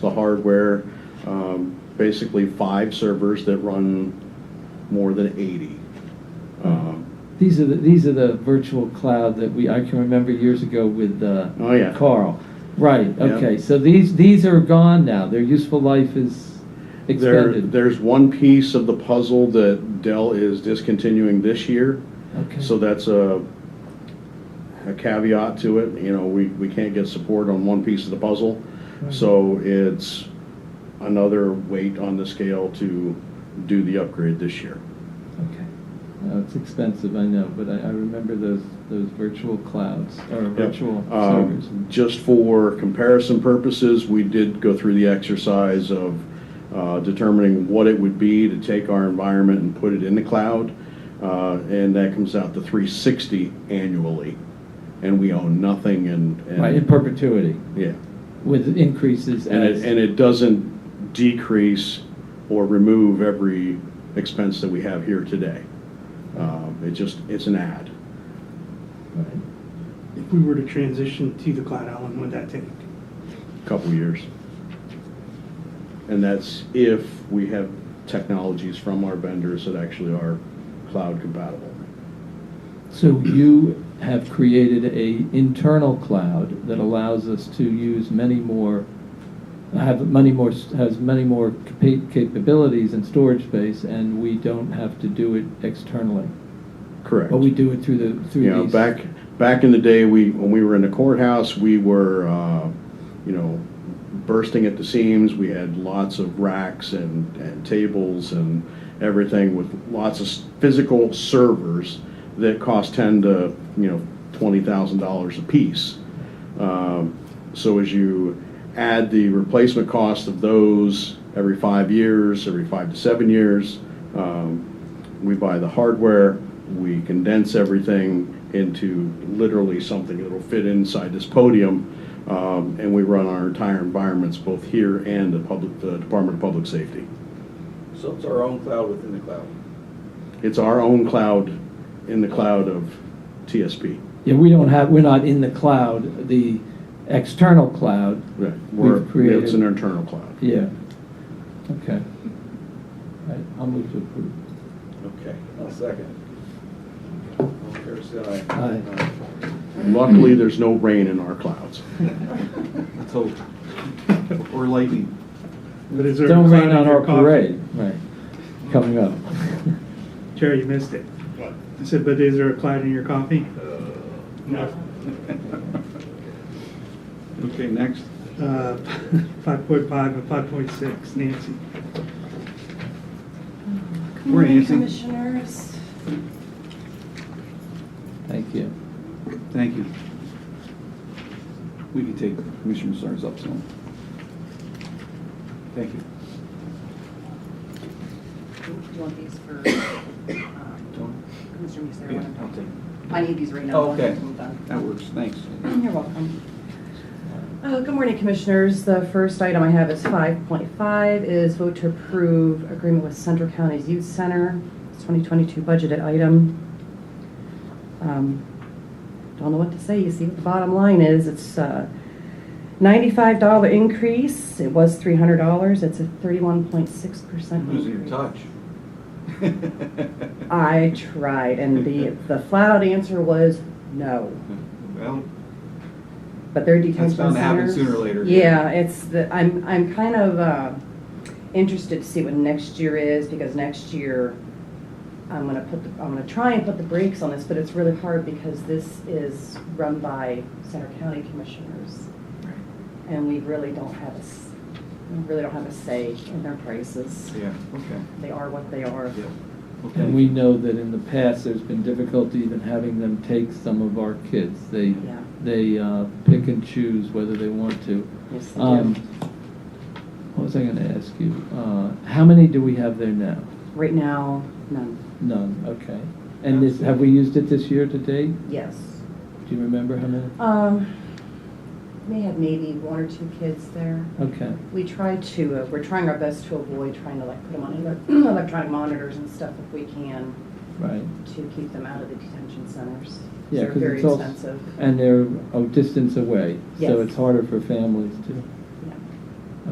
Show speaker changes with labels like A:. A: the hardware, um, basically five servers that run more than 80. Um,
B: These are the, these are the virtual cloud that we, I can remember years ago with, uh,
A: Oh, yeah.
B: Carl. Right,
A: Yeah.
B: okay, so these, these are gone now, their useful life is
A: There,
B: expended.
A: there's one piece of the puzzle that Dell is discontinuing this year,
B: Okay.
A: so that's a, a caveat to it, you know, we, we can't get support on one piece of the puzzle,
B: Right.
A: so it's another weight on the scale to do the upgrade this year.
B: Okay. Uh, it's expensive, I know, but I, I remember those, those virtual clouds, or
A: Yep.
B: virtual
A: Um,
B: servers.
A: Just for comparison purposes, we did go through the exercise of uh, determining what it would be to take our environment and put it in the cloud. uh, And that comes out to 360 annually, and we own nothing and. and-
B: Right, in perpetuity,
A: Yeah.
B: with increases
A: And it,
B: as.
A: and it doesn't decrease or remove every expense that we have here today. Um, It just, it's an add.
B: Right.
C: If we were to transition to the cloud, how long would that take?
A: couple years. And that's if we have technologies from our vendors that actually are cloud compatible.
B: So you have created a internal cloud that allows us to use many more, have many more, has many more capa- capabilities and storage space, and we don't have to do it externally.
A: Correct.
B: But we do it through the,
A: You
B: through
A: know,
B: these.
A: back, back in the day, we, when we were in the courthouse, we were, uh, you know, bursting at the seams. We had lots of racks and, and tables and everything with lots of s- physical servers that cost ten to, you know, twenty thousand dollars apiece. Um, So as you add the replacement cost of those every five years, every five to seven years, um, we buy the hardware, we condense everything into literally something that'll fit inside this podium, um, and we run our entire environments, both here and the public, the Department of Public Safety.
D: So it's our own cloud within the cloud.
A: It's our own cloud in the cloud of TSP.
B: Yeah, we don't have, we're not in the cloud, the external cloud,
A: Right.
B: We've
A: We're- It's
B: created-
A: an internal cloud.
B: yeah. Okay. Right, I'll move to approve.
D: Okay. I'll second. All fair side.
B: Aye.
A: Luckily, there's no rain in our clouds.
E: Let's hope. Or lightning.
C: But is there a
B: Don't
C: cloud
B: rain
C: in
B: on
C: your
B: our
C: coffee?
B: parade, right, coming up.
C: Jerry, you missed it. I said, but is there a cloud in your coffee? No.
E: Okay, next.
C: Uh, 5.5 and 5.6, Nancy.
E: Morning,
F: Good morning,
E: Nancy.
F: Commissioners.
B: Thank you.
E: Thank you. We can take Commissioner Sars up soon. Thank you.
F: Do you want these for, um, Commissioner Musil,
E: Yeah,
F: one of
E: I'll take
F: them?
E: it.
F: I need these right now.
E: Oh, okay.
F: I'm done.
E: That works, thanks.
F: You're welcome. Uh, Good morning, Commissioners. The first item I have is 5.5 is vote to approve agreement with Central County's Youth Center. It's 2022 budgeted item. Um, Don't know what to say. You see what the bottom line is. It's a $95 increase. It was $300. It's a 31.6%
E: Losing your
F: increase.
E: touch.
F: I tried, and the, the flat-out answer was no.
E: Well,
F: But their detention centers.
E: bound to happen sooner or later.
F: Yeah, it's the, I'm, I'm kind of, uh, interested to see what next year is, because next year, I'm gonna put, the I'm gonna try and put the brakes on this, but it's really hard because this is run by Center County Commissioners. And we really don't have a, s- we really don't have a say in their prices.
E: yeah, okay.
F: They are what they are.
E: Yeah. Okay.
B: And we know that in the past, there's been difficulty even having them take some of our kids. They,
F: Yeah.
B: they uh, pick and choose whether they want to.
F: Yes, they do.
B: Um, What was I gonna ask you? Uh, How many do we have there now?
F: Right now, none.
B: None, okay. And this, have we used it this year to date?
F: Yes.
B: Do you remember how many?
F: Um, may have maybe one or two kids there.
B: Okay,
F: We try to, uh, we're trying our best to avoid trying to like put them on ele- electronic monitors and stuff if we can
B: right.
F: to keep them out of the detention centers.
B: Yeah,
F: They're
B: 'cause
F: very
B: it's all-
F: expensive.
B: And they're a distance away, so
F: Yes.
B: it's harder for families to.